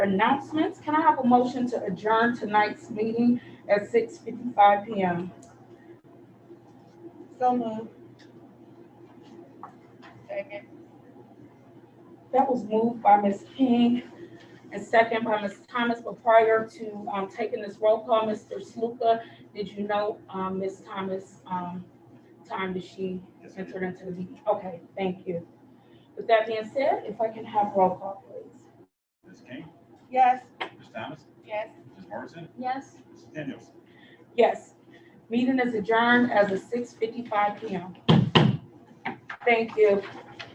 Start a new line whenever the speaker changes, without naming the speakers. announcements. Can I have a motion to adjourn tonight's meeting at six fifty-five PM?
So moved. Second.
That was moved by Ms. King and second by Ms. Thomas, but prior to, um, taking this roll call, Mr. Sluka, did you know, um, Ms. Thomas, um, time that she
Yes, ma'am.
entered into the meeting? Okay, thank you. With that being said, if I can have roll call, please.
Ms. King,
Yes.
Ms. Thomas,
Yes.
Ms. Morrison,
Yes.
Ms. Daniels.
Yes, meeting is adjourned as of six fifty-five PM. Thank you.